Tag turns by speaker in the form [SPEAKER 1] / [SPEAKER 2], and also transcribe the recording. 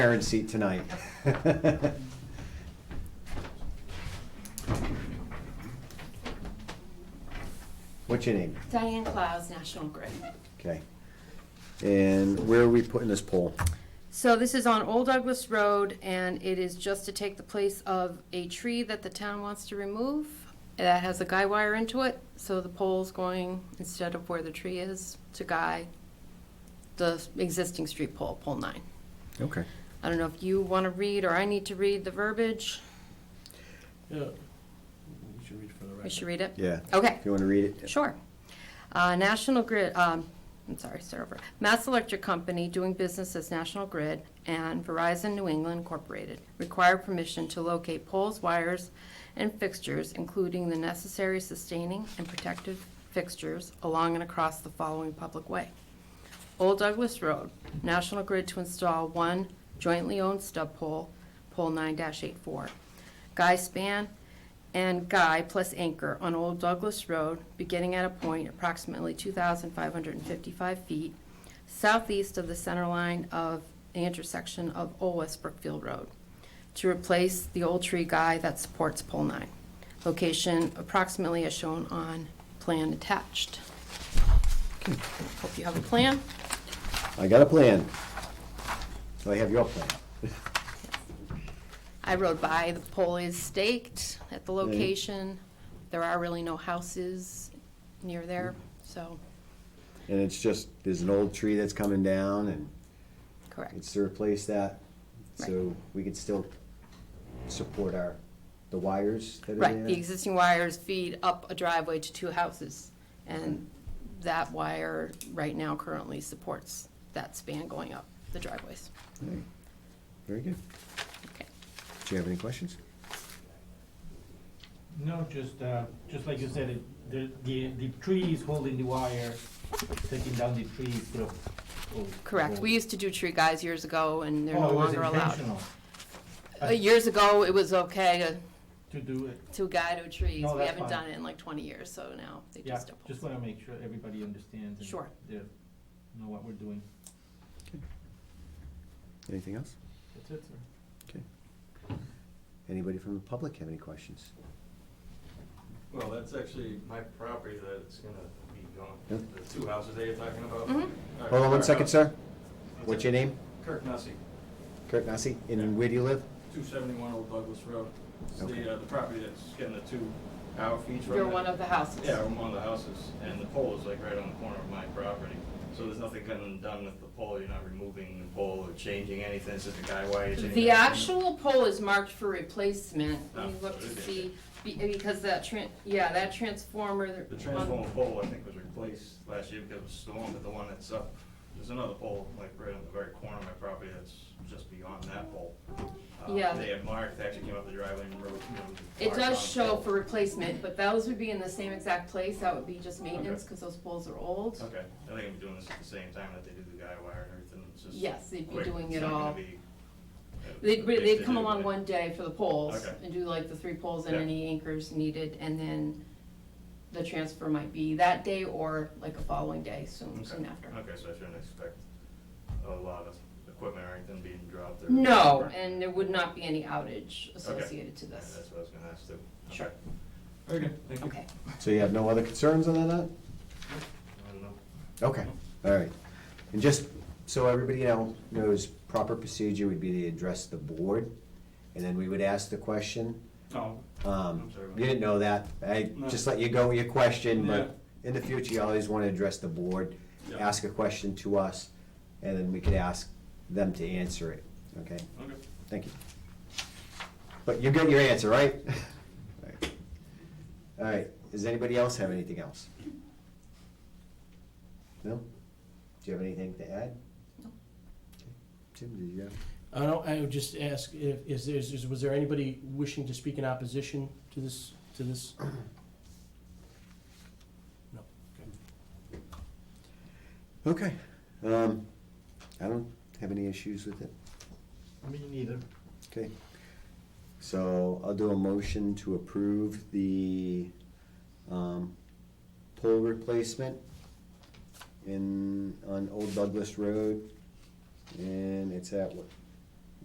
[SPEAKER 1] parent seat tonight. What's your name?
[SPEAKER 2] Diane Clowes, National Grid.
[SPEAKER 1] Okay. And where are we putting this pole?
[SPEAKER 3] So this is on Old Douglas Road, and it is just to take the place of a tree that the town wants to remove. That has a guy wire into it, so the pole's going, instead of where the tree is, to guy the existing street pole, pole nine.
[SPEAKER 1] Okay.
[SPEAKER 3] I don't know if you want to read, or I need to read the verbiage.
[SPEAKER 4] Yeah. You should read for the
[SPEAKER 3] We should read
[SPEAKER 4] record.
[SPEAKER 3] it?
[SPEAKER 1] Yeah.
[SPEAKER 3] Okay.
[SPEAKER 1] If you want to read it?
[SPEAKER 3] Sure. Uh, National Grid, um, I'm sorry, start over. Mass Electric Company, doing business as National Grid, and Verizon New England Incorporated require permission to locate poles, wires, and fixtures, including the necessary sustaining and protective fixtures along and across the following public way. Old Douglas Road, National Grid to install one jointly owned stub pole, pole nine 84 Guy span and guy plus anchor on Old Douglas Road, beginning at a point approximately two thousand five hundred and fifty-five feet southeast of the center line of the intersection of Old West Brookfield Road, to replace the old tree guy that supports pole nine. Location approximately as shown on plan attached. Hope you have a plan.
[SPEAKER 1] I got a plan. So I have your plan.
[SPEAKER 3] I rode by, the pole is staked at the location. There are really no houses near there, so,
[SPEAKER 1] And it's just, there's an old tree that's coming down and
[SPEAKER 3] correct.
[SPEAKER 1] it's to replace that. So we could still support our, the wires that are there.
[SPEAKER 3] Right, the existing wires feed up a driveway to two houses, and that wire right now currently supports that span going up the driveways.
[SPEAKER 1] Alright. Very good.
[SPEAKER 3] Okay.
[SPEAKER 1] Do you have any questions?
[SPEAKER 5] No, just, uh, just like you said, it- the, the, the tree is holding the wire, taking down the tree sort of. oh,
[SPEAKER 3] Correct.
[SPEAKER 5] oh.
[SPEAKER 3] We used to do tree guys years ago, and they're no
[SPEAKER 5] Oh, it was
[SPEAKER 3] longer allowed.
[SPEAKER 5] intentional
[SPEAKER 3] Uh, Years ago, it was okay to,
[SPEAKER 5] To do it,
[SPEAKER 3] to guide to trees.
[SPEAKER 5] No,
[SPEAKER 3] We
[SPEAKER 5] that's
[SPEAKER 3] haven't
[SPEAKER 5] fine.
[SPEAKER 3] done it in like twenty years, so now they
[SPEAKER 5] yeah,
[SPEAKER 3] just don't.
[SPEAKER 5] just wanna make sure everybody understands and.
[SPEAKER 3] Sure.
[SPEAKER 5] they know what we're doing,
[SPEAKER 1] Anything else?
[SPEAKER 5] that's it, sir.
[SPEAKER 1] Okay. Anybody from the public have any questions?
[SPEAKER 6] Well, that's actually my property that's gonna be
[SPEAKER 1] Yeah.
[SPEAKER 6] gone, the two houses that you're talking about.
[SPEAKER 3] Mhm.
[SPEAKER 6] All right,
[SPEAKER 1] Hold on one
[SPEAKER 6] our
[SPEAKER 1] second,
[SPEAKER 6] house.
[SPEAKER 1] sir. What's your name?
[SPEAKER 6] Kirk Nussie,
[SPEAKER 1] Kurt Nasi, and where do you live?
[SPEAKER 6] two seventy-one Old Douglas Road. It's
[SPEAKER 1] Okay.
[SPEAKER 6] the, uh, the property that's getting the two hour feature on it.
[SPEAKER 3] You're one of the houses.
[SPEAKER 6] Yeah, I'm one of the houses, and the pole is like right on the corner of my property. So there's nothing getting done with the pole, you're not removing the pole or changing anything, it's just a guy wire. you're changing
[SPEAKER 3] The
[SPEAKER 6] everything.
[SPEAKER 3] actual pole is marked for replacement,
[SPEAKER 6] Oh,
[SPEAKER 3] you look
[SPEAKER 6] so
[SPEAKER 3] to
[SPEAKER 6] it is.
[SPEAKER 3] see, be- because that tran, yeah, that transformer. um,
[SPEAKER 6] The transformer pole, I think, was replaced last year because of a storm, but the one that's up, there's another pole, like, right on the very corner of my property that's just beyond that pole. Uh,
[SPEAKER 3] Yeah.
[SPEAKER 6] They had marked, they actually came up the driveway and wrote. you know,
[SPEAKER 3] It
[SPEAKER 6] marked on the
[SPEAKER 3] does show
[SPEAKER 6] pole.
[SPEAKER 3] for replacement, but those would be in the same exact place, that would be just maintenance,
[SPEAKER 6] Okay.
[SPEAKER 3] cause those poles are old.
[SPEAKER 6] Okay, I think I'm doing this at the same time that they do the guy wire and everything, it's just.
[SPEAKER 3] Yes, they'd be
[SPEAKER 6] quick.
[SPEAKER 3] doing
[SPEAKER 6] It's
[SPEAKER 3] it
[SPEAKER 6] not gonna
[SPEAKER 3] all.
[SPEAKER 6] be, uh,
[SPEAKER 3] They'd,
[SPEAKER 6] big
[SPEAKER 3] they'd
[SPEAKER 6] to
[SPEAKER 3] come
[SPEAKER 6] do,
[SPEAKER 3] along
[SPEAKER 6] but-
[SPEAKER 3] one day for the poles,
[SPEAKER 6] Okay.
[SPEAKER 3] and do like the three poles and
[SPEAKER 6] Yeah.
[SPEAKER 3] any anchors needed, and then the transfer might be that day or like a following day, soon,
[SPEAKER 6] Okay.
[SPEAKER 3] soon after.
[SPEAKER 6] Okay, so I shouldn't expect a lot of equipment or anything being dropped or.
[SPEAKER 3] No,
[SPEAKER 6] Right.
[SPEAKER 3] and there would not be any outage associated to this.
[SPEAKER 6] That's what I was gonna ask too. Okay.
[SPEAKER 3] Sure.
[SPEAKER 6] Very good, thank you.
[SPEAKER 3] Okay,
[SPEAKER 1] So you have no other concerns on that?
[SPEAKER 6] I don't know.
[SPEAKER 1] Okay, all right. And just so everybody now knows, proper procedure would be to address the board, and then we would ask the question.
[SPEAKER 6] Oh,
[SPEAKER 1] Um,
[SPEAKER 6] I'm sorry.
[SPEAKER 1] You didn't know that. I
[SPEAKER 6] No.
[SPEAKER 1] just let you go with your question, but in the future, you always want to address the board,
[SPEAKER 6] Yeah.
[SPEAKER 1] ask a question to us, and then we could ask them to answer it, okay?
[SPEAKER 6] okay.
[SPEAKER 1] Thank you. But you got your answer, right? All right, does anybody else have anything else? No? Do you have anything to add?
[SPEAKER 3] No.
[SPEAKER 1] Okay. Tim, did you have?
[SPEAKER 4] I don't, I would just ask if, is there, is- was there anybody wishing to speak in opposition to this, to this? No, okay.
[SPEAKER 1] Okay. Um, I don't have any issues with it.
[SPEAKER 5] Me neither.
[SPEAKER 1] Okay. So I'll do a motion to approve the, um, pole replacement in, on Old Douglas Road. And it's at what,